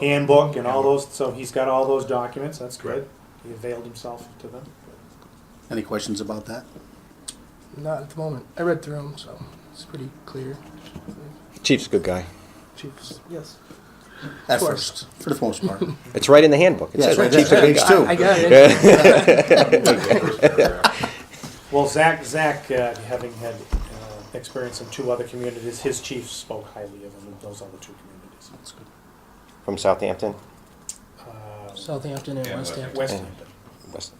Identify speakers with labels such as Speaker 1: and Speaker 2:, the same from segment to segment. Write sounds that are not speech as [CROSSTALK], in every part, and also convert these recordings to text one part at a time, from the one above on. Speaker 1: handbook and all those, so he's got all those documents, that's good. He availed himself to them.
Speaker 2: Any questions about that?
Speaker 3: Not at the moment. I read through them, so it's pretty clear.
Speaker 4: Chief's a good guy.
Speaker 3: Chiefs, yes.
Speaker 2: At
Speaker 3: course.
Speaker 2: first, for the
Speaker 5: [LAUGHS]
Speaker 2: most part.
Speaker 4: It's right in the handbook. It
Speaker 2: Yeah,
Speaker 4: says
Speaker 2: right
Speaker 4: Chief's
Speaker 2: there.
Speaker 4: a good
Speaker 2: Page
Speaker 4: guy.
Speaker 2: two.
Speaker 3: I
Speaker 2: [LAUGHS]
Speaker 3: got it.
Speaker 1: Well, Zach, Zach, uh, having had uh, experience in two other communities, his chief spoke highly of him in those other two communities.
Speaker 2: That's good.
Speaker 4: [LAUGHS] From Southampton,
Speaker 1: Uh,
Speaker 3: Southampton and
Speaker 5: Yeah,
Speaker 3: West Hampton.
Speaker 1: West Hampton.
Speaker 4: West.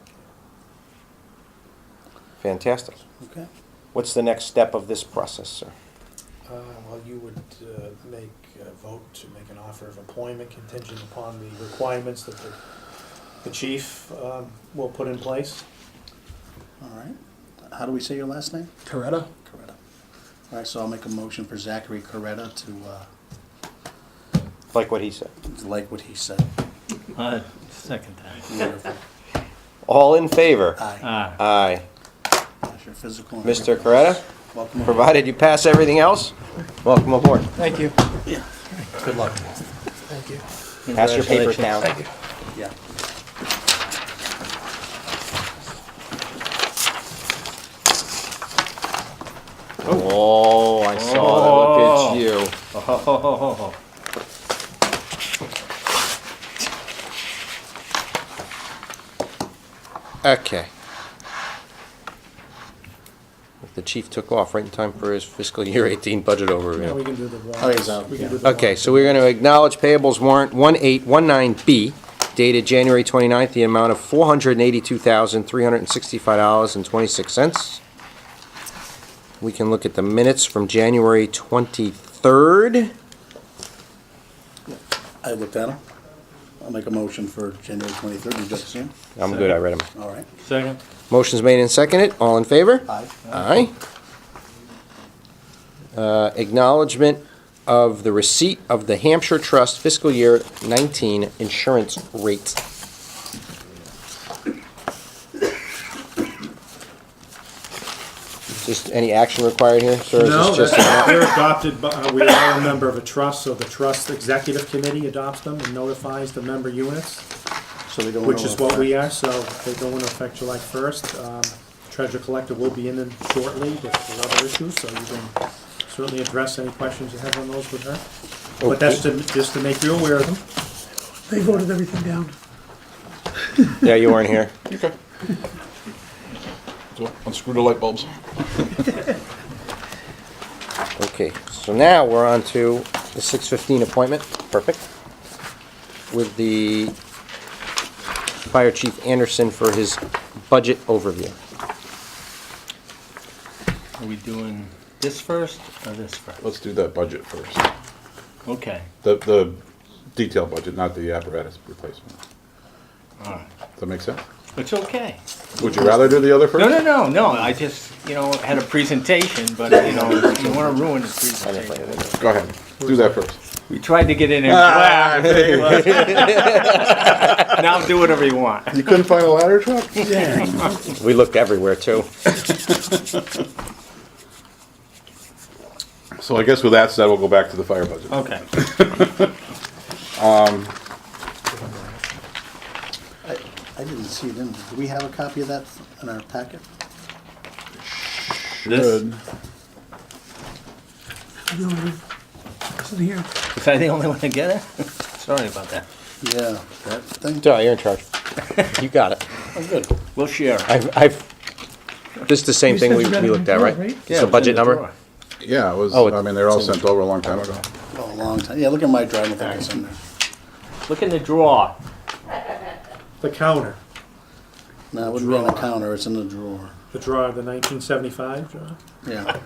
Speaker 4: Fantastic.
Speaker 2: Okay.
Speaker 4: What's the next step of this process, sir?
Speaker 1: Uh, Well, you would uh, make a vote to make an offer of employment contingent upon the requirements that the, the chief um, will put in place.
Speaker 2: All right. How do we say your last name?
Speaker 3: Coretta.
Speaker 2: Coretta. All right, so I'll make a motion for Zachary Coretta to uh,
Speaker 4: Like what he said.
Speaker 2: like what he said.
Speaker 6: Uh, second time.
Speaker 2: Wonderful.
Speaker 4: All in favor?
Speaker 2: Aye.
Speaker 6: Ah,
Speaker 4: Aye.
Speaker 2: That's your physical. and
Speaker 4: Mr.
Speaker 2: everything else.
Speaker 4: Coretta,
Speaker 2: Welcome. aboard.
Speaker 4: provided you pass everything else, welcome aboard.
Speaker 3: Thank you.
Speaker 2: Good luck.
Speaker 3: Thank you.
Speaker 4: Pass your papers down.
Speaker 2: Yeah.
Speaker 4: Oh, I saw that.
Speaker 2: Oh.
Speaker 4: Look at you.
Speaker 6: ho, ho, ho, ho, ho, ho.
Speaker 4: Okay. The chief took off right in time for his fiscal year 18 budget
Speaker 1: Now we
Speaker 4: overview.
Speaker 1: can do the warrants.
Speaker 2: Oh, he's out,
Speaker 1: We can
Speaker 2: yeah.
Speaker 1: do the
Speaker 4: Okay,
Speaker 1: warrants.
Speaker 4: so we're going to acknowledge payables warrant 1819B dated January 29th, the amount of $482,365.26. We can look at the minutes from January 23rd.
Speaker 2: I looked at him. I'll make a motion for January twenty-third. You just see him?
Speaker 4: I'm good, I read them.
Speaker 2: All right.
Speaker 6: Second.
Speaker 4: Motion's made and seconded, all in favor?
Speaker 2: Aye.
Speaker 4: Aye. Uh, Acknowledgement of the receipt of the Hampshire Trust fiscal year 19 insurance rate. Just any action required here, sir? Is
Speaker 1: No,
Speaker 4: this
Speaker 1: that's,
Speaker 4: just-
Speaker 1: they're adopted, by- uh, we are a member of a trust, so the trust executive committee adopts them and notifies the member units,
Speaker 2: So they go.
Speaker 1: which
Speaker 2: into
Speaker 1: is what we
Speaker 2: effect.
Speaker 1: are, so they go into effect July first. Um, Treasurer collector will be in them shortly with the other issues, so you can certainly address any questions you have on those with her. But that's to, just to make you aware of them.
Speaker 7: They voted everything down.
Speaker 4: Yeah, you weren't here.
Speaker 5: So unscrew the light bulbs.
Speaker 4: Okay, so now we're on to the six fifteen appointment, perfect. With the Fire Chief Anderson for his budget overview.
Speaker 6: Are we doing this first or this first?
Speaker 5: Let's do that budget first.
Speaker 6: Okay,
Speaker 5: The, the detailed budget, not the apparatus replacement.
Speaker 6: all right.
Speaker 5: Does that make sense?
Speaker 6: It's okay.
Speaker 5: Would you rather do the other first?
Speaker 6: No, no, no, no, I just, you know, had a presentation, but, you know, you wanna ruin the presentation.
Speaker 5: Go ahead. Do that first.
Speaker 6: We tried to get in and clap. [LAUGHS] Now do whatever you want.
Speaker 5: You couldn't find a ladder truck?
Speaker 4: We looked everywhere too.
Speaker 5: So I guess with that said, we'll go back to the fire budget.
Speaker 6: Okay.
Speaker 2: I didn't see it in. Do we have a copy of that in our packet?
Speaker 6: This,
Speaker 5: Good.
Speaker 7: The only one Isn't here.
Speaker 6: was I the only one to get it? Sorry about that.
Speaker 2: Yeah, that thing.
Speaker 4: Darrell, you're in charge. You got it.
Speaker 2: I'm good.
Speaker 6: We'll share.
Speaker 4: I've, I've, this is the same
Speaker 7: You
Speaker 4: thing
Speaker 7: said
Speaker 4: we,
Speaker 7: you got
Speaker 4: we
Speaker 7: it
Speaker 4: looked
Speaker 7: in
Speaker 4: at,
Speaker 7: the
Speaker 4: right?
Speaker 7: drawer, right?
Speaker 4: It's a budget number?
Speaker 5: Yeah, it was,
Speaker 4: Oh, it-
Speaker 5: I mean, they're all sent over a long time ago.
Speaker 2: Well, Oh, a long time. Yeah, look at my drawer. I don't think it's in there.
Speaker 6: Look in the drawer.
Speaker 1: The counter,
Speaker 2: No, it wouldn't be on the counter. It's in the drawer.
Speaker 1: the draw of the nineteen seventy-five draw.
Speaker 2: Yeah.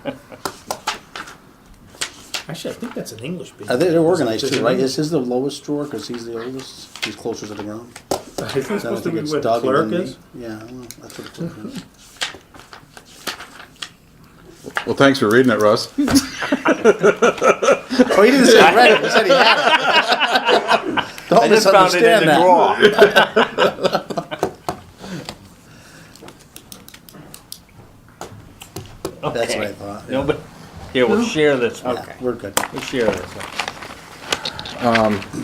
Speaker 1: Actually, I think that's an English.
Speaker 2: I think
Speaker 1: business.
Speaker 2: Uh, they're organized
Speaker 1: Is it
Speaker 2: too, right?
Speaker 1: English?
Speaker 2: Is his the lowest drawer because he's the oldest? He's closer to the ground.
Speaker 1: [LAUGHS] Isn't it
Speaker 2: So I don't
Speaker 1: supposed to
Speaker 2: think
Speaker 1: be
Speaker 2: it's
Speaker 1: where the
Speaker 2: Doug and
Speaker 1: clerk
Speaker 2: then
Speaker 1: is?
Speaker 2: me. Yeah, well, that's what the clerk is.
Speaker 5: Well, thanks for reading it, Russ.
Speaker 2: Oh, he didn't say he read it. He said he had it. [LAUGHS] Don't
Speaker 6: I just found it in
Speaker 2: misunderstand
Speaker 6: the
Speaker 2: that.
Speaker 6: drawer.
Speaker 2: [LAUGHS] That's what I
Speaker 6: Okay.
Speaker 2: thought. yeah.
Speaker 6: Nobody, here, we'll share this one.
Speaker 2: Yeah, We're good.
Speaker 6: We'll share this one.